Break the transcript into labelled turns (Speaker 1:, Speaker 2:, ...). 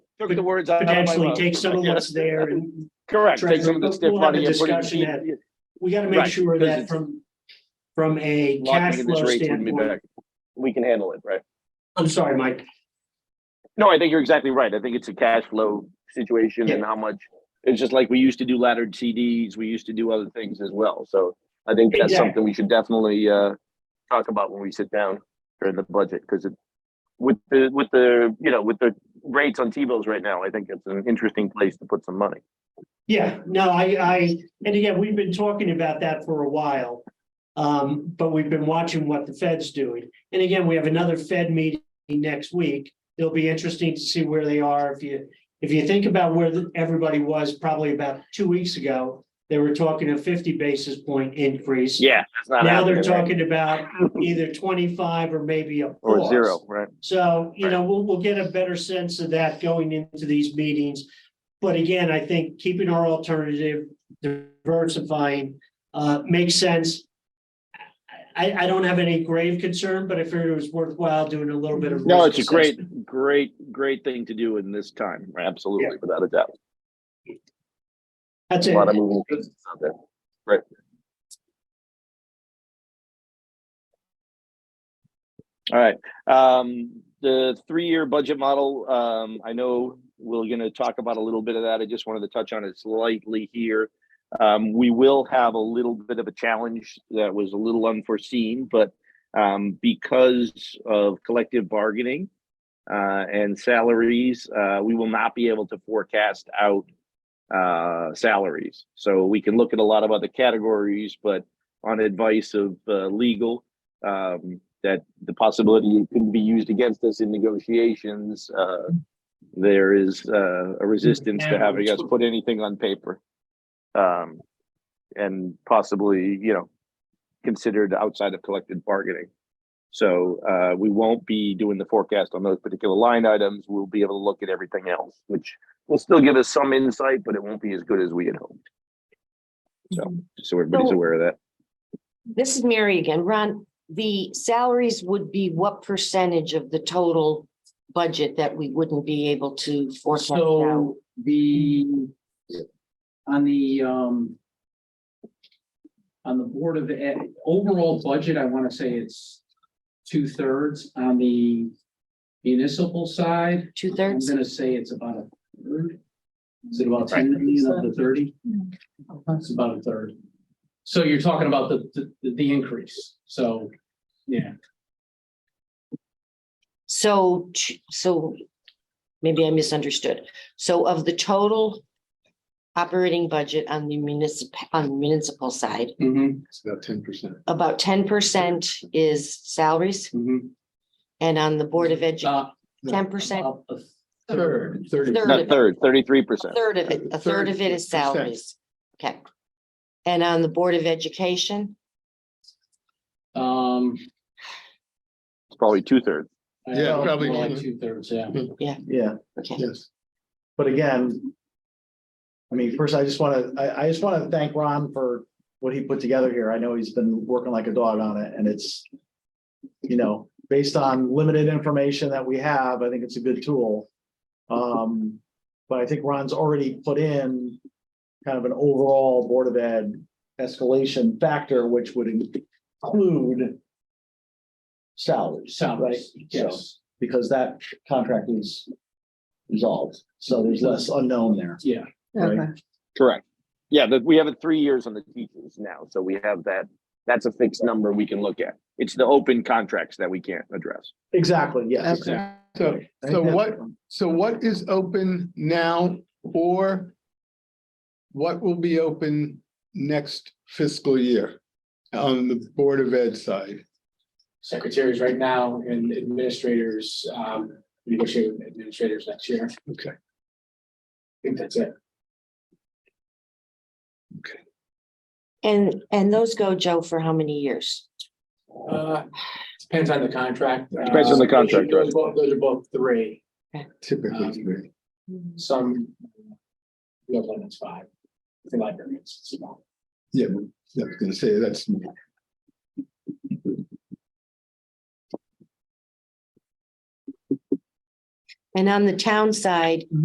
Speaker 1: took the words out of my mouth.
Speaker 2: potentially take some of
Speaker 1: Yeah.
Speaker 2: what's there and
Speaker 1: Correct. Take some of
Speaker 2: Treasury,
Speaker 1: the stiff
Speaker 2: we'll have
Speaker 1: money
Speaker 2: a
Speaker 1: and put it in
Speaker 2: discussion at-
Speaker 1: cheap-
Speaker 2: we gotta make
Speaker 1: Right,
Speaker 2: sure
Speaker 1: because
Speaker 2: that
Speaker 1: it's-
Speaker 2: from, from a cash
Speaker 1: locking in this
Speaker 2: flow
Speaker 1: rate wouldn't be
Speaker 2: standpoint.
Speaker 1: back. We can handle it, right?
Speaker 2: I'm sorry, Mike.
Speaker 1: No, I think you're exactly right. I think it's a cash flow situation and how much. It's just like we used to do laddered CDs. We used to do other things as well. So I think that's
Speaker 2: Exactly.
Speaker 1: something we should definitely uh talk about when we sit down during the budget because it with the with the you know with the rates on T-bills right now, I think it's an interesting place to put some money.
Speaker 2: Yeah, no, I, I, and again, we've been talking about that for a while. Um, but we've been watching what the Fed's doing. And again, we have another Fed meeting next week. It'll be interesting to see where they are. If you, if you think about where the- everybody was probably about two weeks ago, they were talking a fifty basis point increase.
Speaker 1: Yeah, that's not
Speaker 2: Now they're
Speaker 1: happening, right?
Speaker 2: talking about either twenty-five or maybe a
Speaker 1: Or
Speaker 2: pause.
Speaker 1: zero, right?
Speaker 2: So, you know, we'll, we'll get a better sense of that going into these meetings. But again, I think keeping our alternative, diversifying, uh, makes sense. I, I don't have any grave concern, but I figured it was worthwhile doing a little bit of.
Speaker 1: No,
Speaker 2: risk
Speaker 1: it's a great,
Speaker 2: assessment.
Speaker 1: great, great thing to do in this time. Absolutely, without a doubt.
Speaker 2: That's
Speaker 1: A
Speaker 2: it.
Speaker 1: lot of moving pieces out there. Right. All right, um, the three-year budget model, um, I know we're gonna talk about a little bit of that. I just wanted to touch on it slightly here. Um, we will have a little bit of a challenge that was a little unforeseen, but um, because of collective bargaining uh, and salaries, uh, we will not be able to forecast out uh, salaries. So we can look at a lot of other categories, but on advice of uh, legal, um, that the possibility it could be used against us in negotiations, uh, there is uh, a resistance to having us put anything on paper. Um, and possibly, you know, considered outside of collective bargaining. So uh, we won't be doing the forecast on those particular line items. We'll be able to look at everything else, which will still give us some insight, but it won't be as good as we had hoped. So, just so everybody's
Speaker 3: So-
Speaker 1: aware of that.
Speaker 3: Mm-hmm. This is Mary again. Ron, the salaries would be what percentage of the total budget that we wouldn't be able to forecast out?
Speaker 4: So the, on the, um, on the Board of Ed, overall budget, I want to say it's two thirds. On the municipal side,
Speaker 3: Two
Speaker 4: I'm
Speaker 3: thirds?
Speaker 4: going to say it's about a third. Is it about ten million of the thirty? It's about a third. So you're talking about the, the, the increase. So, yeah,
Speaker 3: So, ch- so maybe I misunderstood. So of the total operating budget on the municipal, on the municipal side,
Speaker 4: Mhm,
Speaker 5: It's about ten percent.
Speaker 3: about ten percent is salaries
Speaker 4: mhm.
Speaker 3: and on the Board of Education,
Speaker 4: About-
Speaker 3: ten percent,
Speaker 4: about a Third.
Speaker 5: Thirty.
Speaker 3: Third.
Speaker 1: Not third, thirty-three percent.
Speaker 3: a third of it, a third of it is
Speaker 5: Third percent.
Speaker 3: salaries. Okay. And on the Board of Education?
Speaker 4: Um.
Speaker 1: It's probably two-thirds.
Speaker 5: Yeah, probably.
Speaker 4: More Like two thirds, yeah.
Speaker 6: Yeah,
Speaker 3: Okay.
Speaker 5: Yes.
Speaker 6: but again. I mean, first, I just wanna, I, I just wanna thank Ron for what he put together here. I know he's been working like a dog on it and it's. You know, based on limited information that we have, I think it's a good tool. Um, but I think Ron's already put in. Kind of an overall Board of Ed escalation factor, which would include. Salaries.
Speaker 4: Salaries,
Speaker 6: Right,
Speaker 4: yes,
Speaker 6: because that contract is resolved, so there's less unknown there.
Speaker 4: yeah.
Speaker 6: Right.
Speaker 1: Correct. Yeah, but we have it three years on the teachers now, so we have that, that's a fixed number we can look at. It's the open contracts that we can't address.
Speaker 6: Exactly, yes.
Speaker 4: Okay.
Speaker 6: exactly.
Speaker 5: So,
Speaker 6: I think
Speaker 5: so
Speaker 6: that's-
Speaker 5: what, so what is open now or what will be open next fiscal year on the Board of Ed side?
Speaker 4: Secretaries right now and administrators, um, negotiate with administrators next year. I
Speaker 5: Okay,
Speaker 4: think that's it.
Speaker 3: And, and those go, Joe, for how many years?
Speaker 4: Uh, depends on the contract. uh,
Speaker 1: Depends on the contract,
Speaker 4: Those
Speaker 1: right.
Speaker 4: are both- those are both three,
Speaker 5: typically three.
Speaker 4: Mm. some. The other one is five. The librarians, it's about.
Speaker 5: Yeah, I was gonna say, that's me.
Speaker 3: And on the town side,